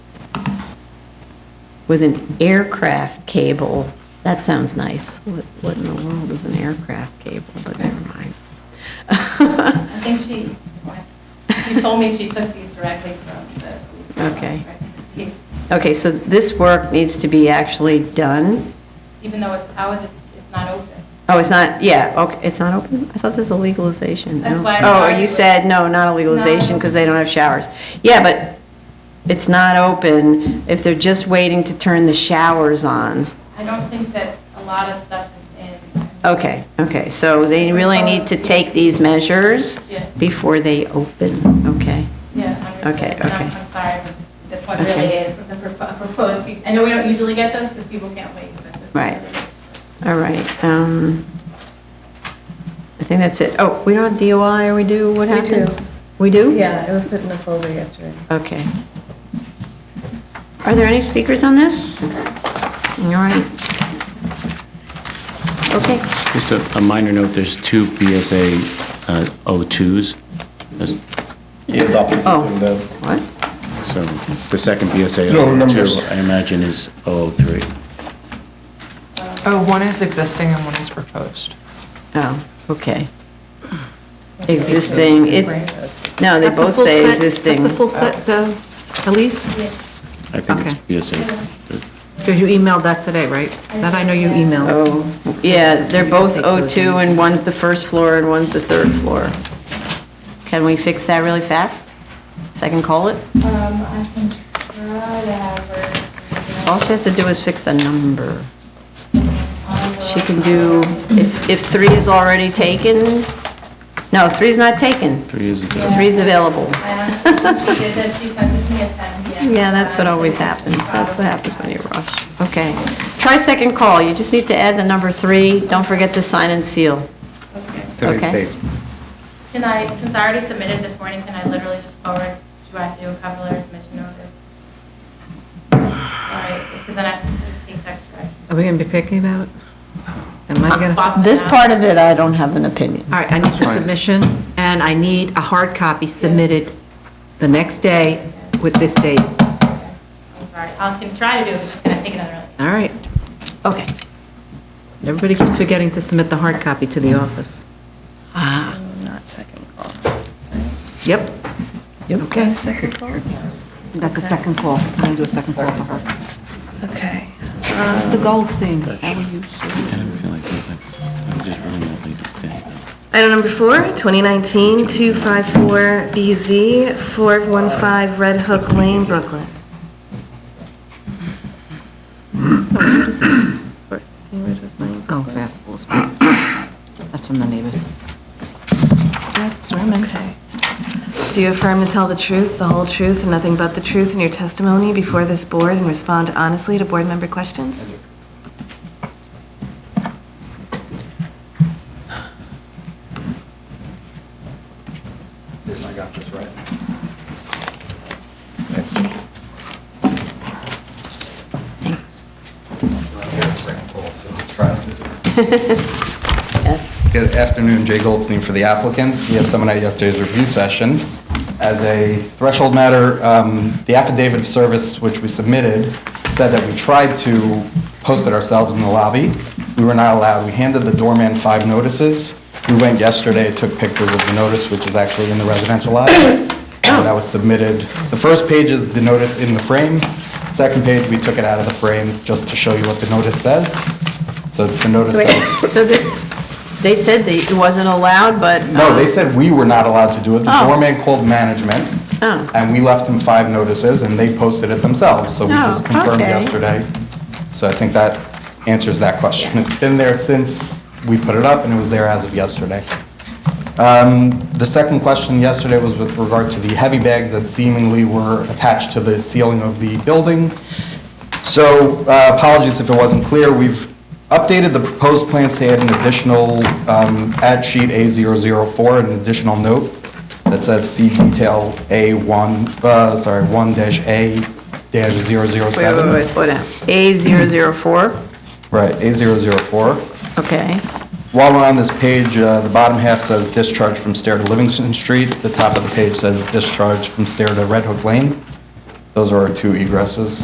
with an aircraft cable. That sounds nice. What what in the world is an aircraft cable? But never mind. I think she, she told me she took these directly from the. police department Okay. recommendation. Okay, so this work needs to be actually done? Even though it's, how is it, it's not open. Oh, it's not, yeah, okay, it's not open? I thought this was a legalization. no? That's why I Oh, you started. said, no, not a legalization, because they don't have showers. Yeah, but it's not open if they're just waiting to turn the showers on. I don't think that a lot of stuff is in. Okay, okay, so they really need to take these measures Yeah. before they open, okay? Yeah, understood. Okay, And I'm- okay. I'm sorry, but this- this one Okay. really is the propo- proposed piece. I know we don't usually get those because people can't wait. but this is Right. really- All right, um, I think that's it. Oh, we don't have DOI, or we do, what We happened? do. We do? Yeah, it was put in the folder yesterday. Okay. Are there any speakers on this? All right. Okay, Just a, a minor note, there's two BSA uh, O2s. There's- Yeah, adopted Oh. in the- what? So the second BSA No, numbers. O2, I imagine, is O3. Oh, one is existing and one is proposed. Oh, okay. Existing, it, no, they both say existing. uh, That's a full set, though, Elise? I think it's Okay. BSA. Because you emailed that today, right? That I know you emailed. Oh, yeah, they're both Take those in. O2, and one's the first floor and one's the third floor. Can we fix that really fast? Second call it? Um, I can try to have her. All she has to do is fix the number. I will- She can do, if, if three is already taken, no, three's not taken, Three is a three's available. I honestly, think she did this, she sent it to me at 10 p.m. Yeah, that's what Um, so always she's happens, that's probably what happens when you rush. Okay, try second call, you just need to add the number three, don't forget to sign and seal. Okay. Okay. Can I, since I already submitted this morning, can I literally just forward, do I have to do a cover letter submission notice? Sorry, because then I have to take extra action. Are we going to be picky about it? Am I going to? All Boston This now. part of it, I don't have an opinion. right, I need the submission, and I need a hard copy submitted the next day with this date. All I'm sorry, I can try to do it, it's just gonna take another, right. Okay. Everybody keeps forgetting to submit the hard copy to the office. Ah, Not second call. Yep. Okay. Second call? That's a second call. I'm going to do a second call for her. Okay. Mr. Goldstein, how are you? I don't feel like I'm just ruining my lady's day. Item number four, E 2019-254BZ, 415 Red Hook Lane, Brooklyn. Oh, Festivals. That's from the neighbors. Swear in. Okay. Do you affirm to tell the truth, the whole truth, and nothing but the truth in your testimony before this board and respond honestly to board member questions? Yes. Good afternoon, Jay Goldstein for the applicant. We had someone at yesterday's review session. As a threshold matter, um, the affidavit of service which we submitted said that we tried to post it ourselves in the lobby. We were not allowed. We handed the doorman five notices. We went yesterday, took pictures of the notice, which is actually in the residential lobby. And That was submitted. The first page is the notice in the frame. Second page, we took it out of the frame just to show you what the notice says. So it's the notice that was So this, they said that it wasn't allowed, but. um, no, they said we were not allowed to do it. The Oh. doorman called management, Oh. and we left them five notices, and they posted it themselves, so we Oh, just confirmed okay. yesterday. So I think that answers that question. It's been there since we put it up, and it was there as of yesterday. Um, The second question yesterday was with regard to the heavy bags that seemingly were attached to the ceiling of the building. So uh, apologies if it wasn't clear, we've updated the proposed plans to add an additional um, add sheet A004, an additional note that says see detail A1, uh, sorry, 1-A-007. Wait, wait, wait, slow down. A zero zero four, Right, A004. okay. While we're on this page, uh, the bottom half says discharge from stair to Livingston Street. The top of the page says discharge from stair to Red Hook Lane. Those are our two egresses.